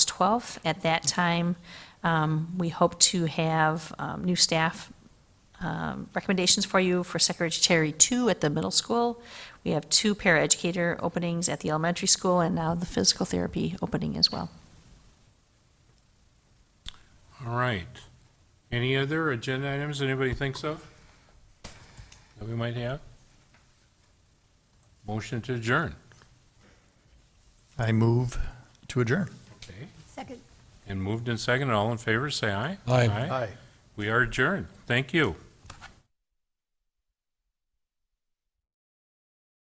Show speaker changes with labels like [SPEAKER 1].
[SPEAKER 1] 12th. At that time, um, we hope to have um, new staff um, recommendations for you for Secretary 2 at the middle school. We have two paraeducator openings at the elementary school, and now the physical therapy opening as well.
[SPEAKER 2] All right. Any other agenda items anybody thinks of that we might have? Motion to adjourn.
[SPEAKER 3] I move to adjourn.
[SPEAKER 2] Okay.
[SPEAKER 4] Second.
[SPEAKER 2] And moved and seconded. All in favor, say aye.
[SPEAKER 5] Aye.
[SPEAKER 2] Aye. We are adjourned. Thank you.